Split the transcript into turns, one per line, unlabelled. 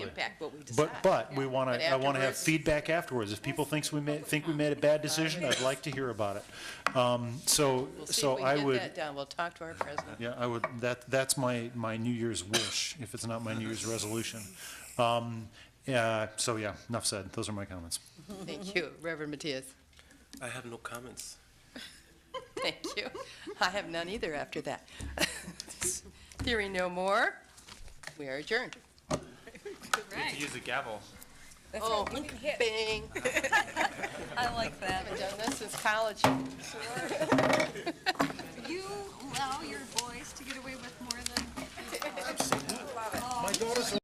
impact what we decide.
But, but we want
But
to, I want to have
afterwards-
feedback afterwards. If people thinks we made, think we made a bad decision, I'd like to hear about it. Um, So,
We'll see
so
if we
I
can get
would,
that done. We'll talk to our president.
yeah, I would, that, that's my, my New Year's wish, if it's not my New Year's resolution. Um, Yeah, so yeah, enough said. Those are my comments.
Thank you, Reverend Matias.
I have no comments.
Thank you. I have none either after that. Theory no more. We are adjourned.
Right.
Use the gavel.
Oh, bang.
I like that.
Haven't done this since college.
You allow your boys to get away with more than